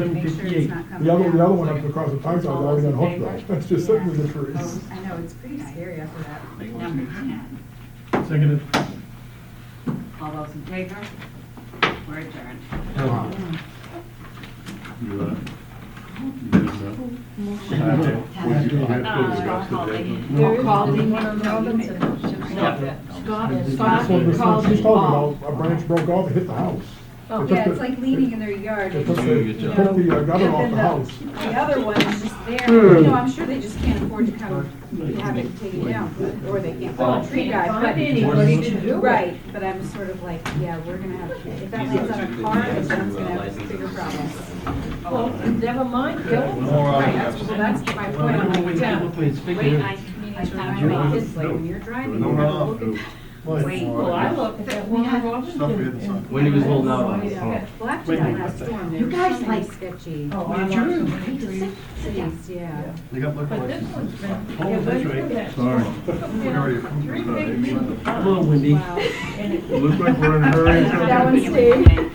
Make sure it's not coming The other, the other down. one up across the park, I was All already those on in hook favor? though, that's just sitting in the Yeah. trees. Oh, I know, it's pretty scary after that, number ten. Oh. Seconded. All those in favor? We're adjourned. Oh, You, uh, you did, uh, I have to, would you, I Uh, have to discuss the date. There Call is the- one on Robinson. Yeah. That's Scott, what Scott this- called she's me talking off. about, a branch broke off and hit the house. It took Oh, Yeah, the- it's like leaning in their yard. It took and, the, you it know, took the uh, gutter and off then the house. Hmm. The other one is just there, you know, I'm sure they just can't afford to come, have it taken down, but- or they can't Oh. call a tree guy. but- Find anybody to do it. Right, but I'm sort of like, yeah, we're gonna have, if that lands on a car, then that's gonna uh, have bigger problems. Well, never mind, go. Right, that's, well, that's my point, I'm like, yeah, wait, I, I kind you of want- like this, like, when you're driving. No, you gotta no, look at- no. Wait, Well, I looked at that one on Robinson. Stuff we had to sign. and- When he was holding out on Oh, it. yeah. Blackjack Wait a minute, last what the- storm, You there guys was something like- sketchy. Oh, I lost so many trees. Cities, yeah. They got liquor But this licenses. one's been, Oh, yeah, that's but right. look at that, Sorry. We already approved three that. big people. A little windy. Wow. And it- Look like we're in a hurry. That one stayed.